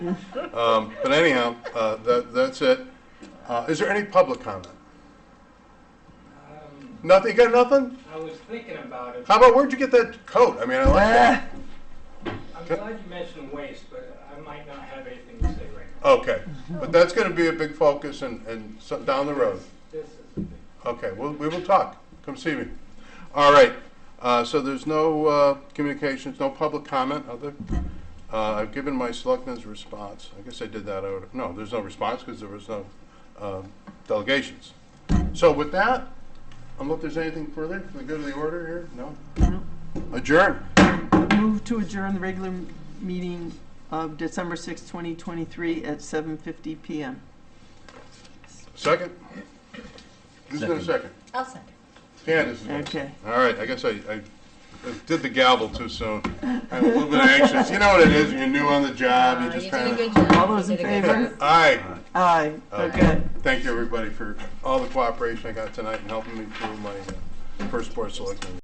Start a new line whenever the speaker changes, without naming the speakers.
Um, But anyhow, uh, that, that's it. Uh, Is there any public comment?
Um,
Nothing, you got nothing?
I was thinking about it.
How about, where'd you get that coat? I mean, I like that.
I'm glad you mentioned waste, but I might not have anything to say right now.
Okay, but that's gonna be a big focus and, and so- down the road.
This is the big.
Okay, well, we will talk. Come see me. All right, uh, so there's no, uh, communications, no public comment, other? Uh, I've given my selectmen's response. I guess I did that out of, no, there's no response because there was no, uh, delegations. So with that, unless there's anything further, can we go to the order here? No? Adjourn.
Move to adjourn the regular m- meeting of December 6, 2023 at 7:50 PM.
Second? Who's gonna second?
I'll second.
Candace is gonna
Okay.
All right, I guess I, I did the gavel too soon. I'm a little bit anxious. You know what it is, when you're new on the job, you
Uh,
just
did a
kind
good
of.
job.
All those
You did
in
a good
favor?
job.
Aye.
Aye, okay.
Thank you, everybody, for all the cooperation I got tonight and helping me through my uh, first board selection.